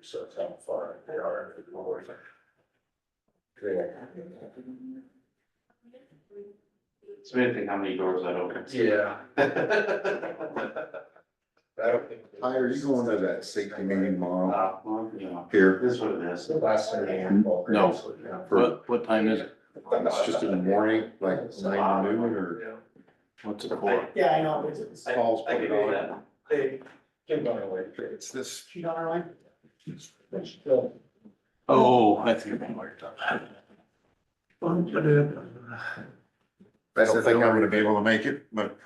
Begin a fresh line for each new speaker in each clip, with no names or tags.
so it's how far they are. in the north.
It's amazing how many doors that opens.
Yeah. I don't think.
Ty, are you going to that safety meeting tomorrow
Uh, well, you know,
here?
this is what it is.
It's the last thing.
No.
For,
What, what time is it?
it's just in the morning, like nine to noon or
What's it for?
Yeah, I know, it's, it's,
Paul's
I
putting
could
it
do
on?
that.
They can run away.
It's this,
she's on her line.
Oh, I think I worked on that.
uh, I don't think I'm gonna be able to make it, but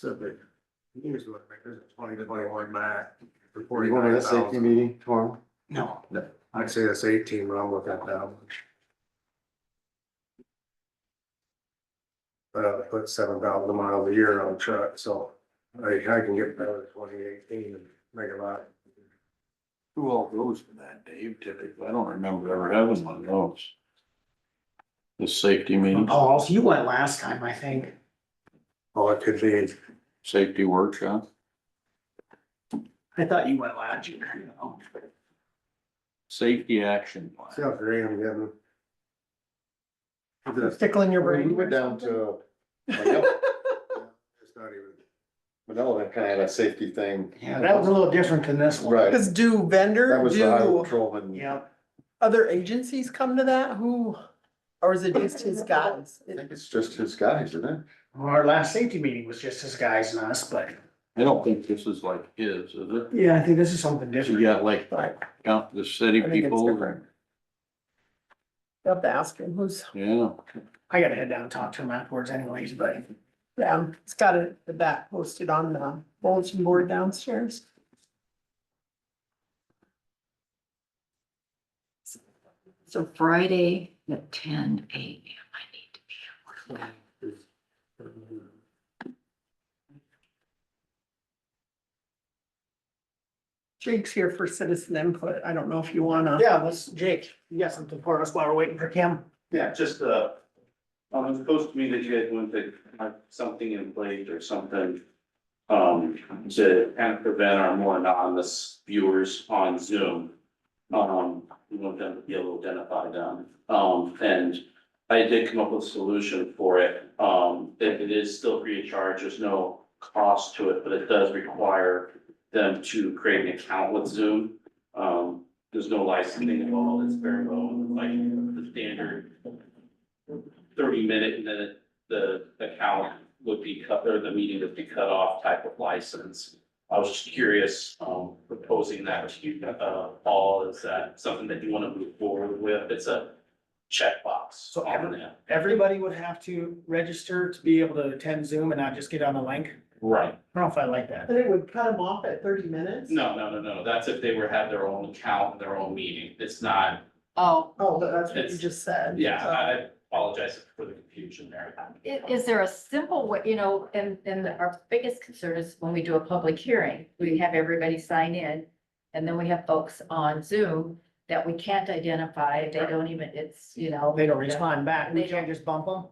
Twenty twenty-one Mac.
are you going to that safety meeting tomorrow?
No.
I'd say that's eighteen, but I'll look at that. one. But I put seven thousand miles a year on a truck, so I, I can get better than twenty eighteen and make a lot.
Who all goes to that, Dave, typically? I don't remember ever having one of those. The safety meeting,
Oh.
Paul, you went last time, I think.
Oh, it could be,
safety workshop.
I thought you went last year, you know.
Safety action
see
plan.
how green I'm getting. Just-
Tickling your brain.
We went down to. Manila.
It's not even.
Manila had kind of a safety thing.
Yeah, that was a little different than this one.
Right,
Cause do
that
vendor,
was the highway
do
patrolman.
Yeah,
other agencies come to that? Who, or is it just his guys?
I think it's just his guys, isn't it?
Well, our last safety meeting was just his guys and us, but.
I don't think this is like his, is it?
Yeah, I think this is something
You
different.
got like, count the city
I think it's
people,
different. You have to ask him who's,
yeah.
I gotta head down and talk to him afterwards anyways, but
yeah, it's got it, that posted on the bulletin board downstairs.
So Friday at ten AM, I need to be at work.
Jake's here for citizen input. I don't know if you wanna.
yeah, let's, Jake, you got something for us while we're waiting for Kim?
Yeah, just, uh, um, it's supposed to me that you guys want to have something in place or something. Um, to kind of prevent our more anonymous viewers on Zoom. Um, we want them to be able to identify them. Um, and I did come up with a solution for it. Um, it- it is still free of charge. There's no cost to it, but it does require them to create an account with Zoom. Um, there's no licensing involved. It's very low, like the standard thirty minute and then the account would be cut, or the meeting would be cut off type of license. I was just curious, um, proposing that to you, uh, Paul, is that something that you want to move forward with? It's a checkbox
So
on
every-
that.
Everybody would have to register to be able to attend Zoom and not just get on the link.
Right.
I don't know if I like that.
But it would cut him off at thirty minutes?
No, no, no, no, that's if they were, had their own account, their own meeting. It's not,
Oh,
Oh, but that's what you
It's-
just said.
yeah,
so.
I apologize for the confusion there.
i- is there a simple way, you know, and, and our biggest concern is when we do a public hearing, we have everybody sign in. And then we have folks on Zoom that we can't identify, they don't even, it's, you know.
They don't respond back. We
They
can't
don't.
just bump them.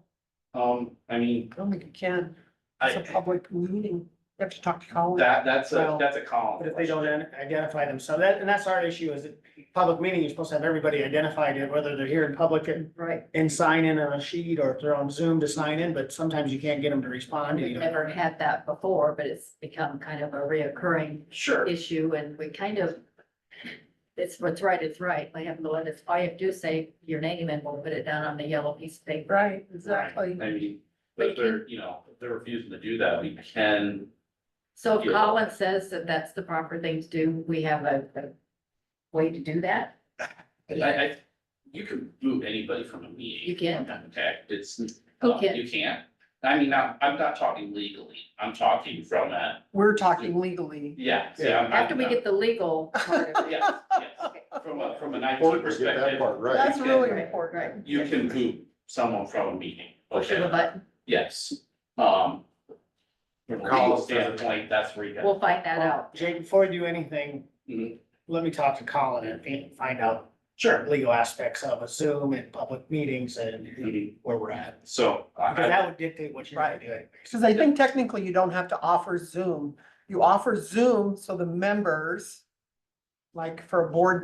Um, I mean,
I don't think you can. It's a
I,
public meeting. You have to talk to Colin.
that, that's a,
Well,
that's a column.
But if they don't ident- identify themselves, that, and that's our issue is that public meeting, you're supposed to have everybody identified, whether they're here in public and,
Right,
and sign in on a sheet or if they're on Zoom to sign in, but sometimes you can't get them to respond.
we've never had that before, but it's become kind of a reoccurring
Sure.
issue and we kind of. It's what's right, it's right. Like have the one that's, I do say your name and we'll put it down on the yellow piece of paper.
Right, exactly.
I mean, but if they're, you know, if they're refusing to do that, we can,
So if
Yeah.
Colin says that that's the proper thing to do, we have a, a way to do that?
I, I, you can move anybody from a meeting.
You can.
Okay, it's,
Who
uh,
can?
you can't. I mean, I'm, I'm not talking legally, I'm talking from a,
We're talking legally.
yeah, yeah. I'm- I'm-
After we get the legal part of it.
Yes, yes, from a, from an IT
Important to get that
perspective,
part right.
That's really
Right,
important.
you can move someone from a meeting.
Push of a button,
Yes, um. From a legal
Collins doesn't-
standpoint, that's where you got.
we'll find that out.
Jake, before you do anything,
Mhm.
let me talk to Colin and fi- find out
Sure.
legal aspects of a Zoom and public meetings and
Mhm.
where we're at.
So. I-
Because that would dictate what you're gonna do.
Because I think technically you don't have to offer Zoom. You offer Zoom so the members, like for a board